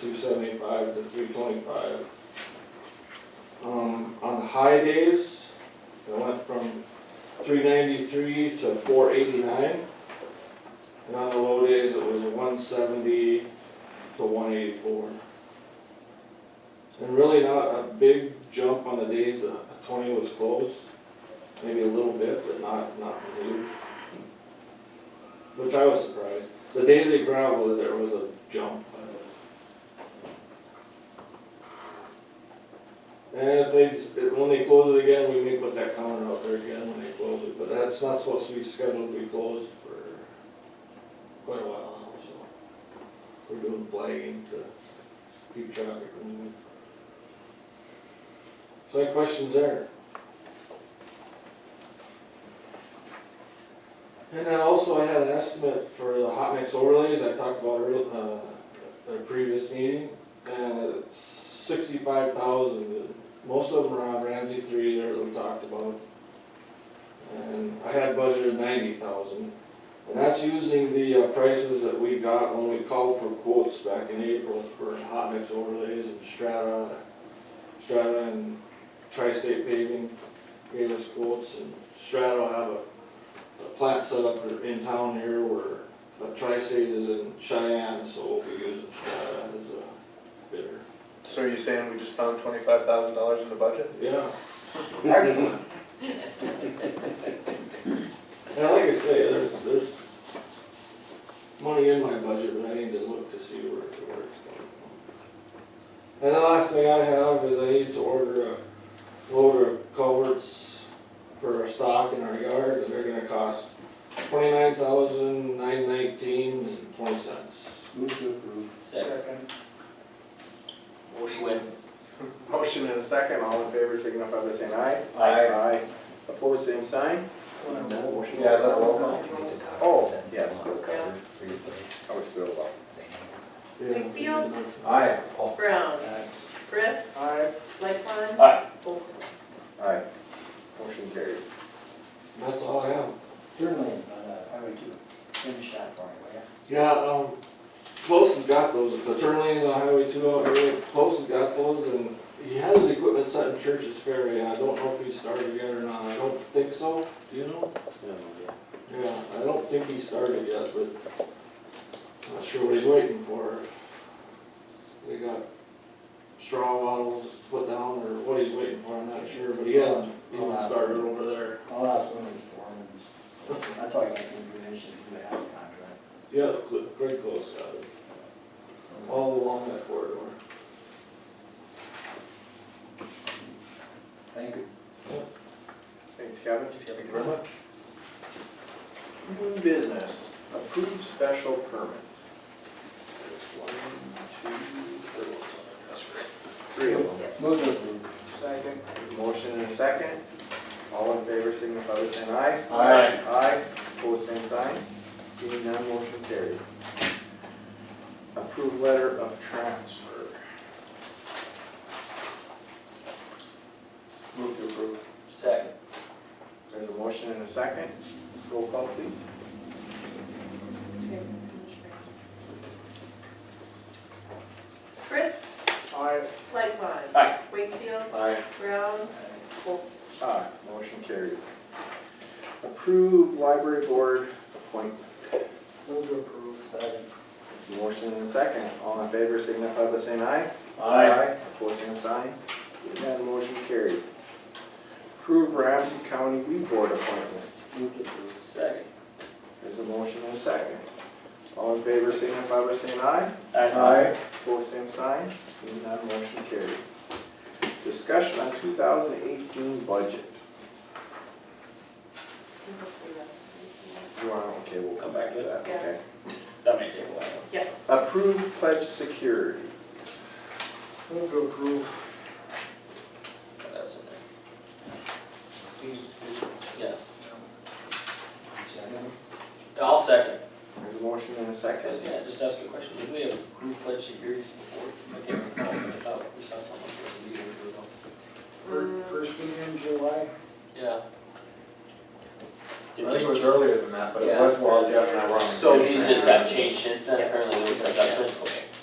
two seventy-five to three twenty-five. Um, on the high days, it went from three ninety-three to four eighty-nine. And on the low days, it was one seventy to one eighty-four. And really not a big jump on the days that twenty was closed, maybe a little bit, but not, not huge. Which I was surprised. The day they gravelled, there was a jump. And if they, if- when they close it again, we may put that counter out there again when they close it, but that's not supposed to be scheduled to be closed for quite a while now, so. We're doing flagging to keep traffic moving. So any questions there? And then also I had an estimate for the hot mix overlays I talked about earlier, uh, at a previous meeting. And it's sixty-five thousand, most of them are on Ramsey three there that we talked about. And I had budgeted ninety thousand. And that's using the uh, prices that we got when we called for quotes back in April for hot mix overlays and strata, strata and tri-state paving gave us quotes and strata will have a a plant set up in town here where the tri-state is in Cheyenne, so we'll be using Strata as a bidder. So are you saying we just found twenty-five thousand dollars in the budget? Yeah, Excellent. and like I say, there's, there's money in my budget, but I need to look to see where, where it's coming from. And the last thing I have is I need to order a load of culverts for our stock in our yard, and they're gonna cost twenty-nine thousand, nine nineteen and twenty cents. Move to approve. Second. Motion went. Motion and a second, all in favor, signify by saying aye. Aye. Aye. Opposed, same sign. Motion. Yeah, is that a roll call? Oh, yes, Yeah. I was still up. McFeely? Aye. Brown. Brett. Aye. Lightfon. Aye. Olson. Aye. Motion carried. That's all I have. Your lane on uh, Highway two, finish that for me, will ya? Yeah, um, Close has got those, the turn lanes on Highway two out there, Close has got those, and he has his equipment set in Church's Ferry, and I don't know if he started yet or not, I don't think so, do you know? Yeah, I don't think he started yet, but not sure what he's waiting for. They got straw bottles put down, or what he's waiting for, I'm not sure, but he hasn't, he I'll hasn't ask started him. over there. I'll ask one of these foremen, that's all I got the information, who has the contract. Yeah, Cl- Craig Close got it, all along that corridor. Thank you. Thanks, Kevin. Thanks, Kevin. Thank you very much. New business, approved special permit. There's one, two, three. Three of them. Move to approve. Second. Motion and a second. All in favor, signify by saying aye. Aye. Aye, pose same sign. Seeing none, motion carried. Approved letter of transfer. Move to approve. Second. There's a motion and a second. Roll call, please. Brett. Aye. Lightfon. Aye. Wakefield. Aye. Brown. Olson. Aye, motion carried. Approved library board appointment. Move to approve. Second. Motion and a second. All in favor, signify by saying aye. Pose same sign. Seeing none, motion carried. Approved Ramsey County Weed Board appointment. Move to approve. Second. There's a motion and a second. All in favor, signify by saying aye. Both same sign, Seeing none, motion carried. Discussion on two thousand eighteen budget. You want, okay, we'll come back to that, Yeah. okay. That may take a while. Approved pledge security. Move to approve. but That's in there. Yeah. Second. I'll second. There's a motion and a I was second. gonna just ask you a question. Did we have group pledge securities before? I can't recall, but I thought we saw something like this a year or ago. Fir- First meeting in July. Yeah. Did I think it we- was earlier than that, but it Yeah. was while Jeff and I were on. So these just got changed since then, apparently, those adjustments, okay.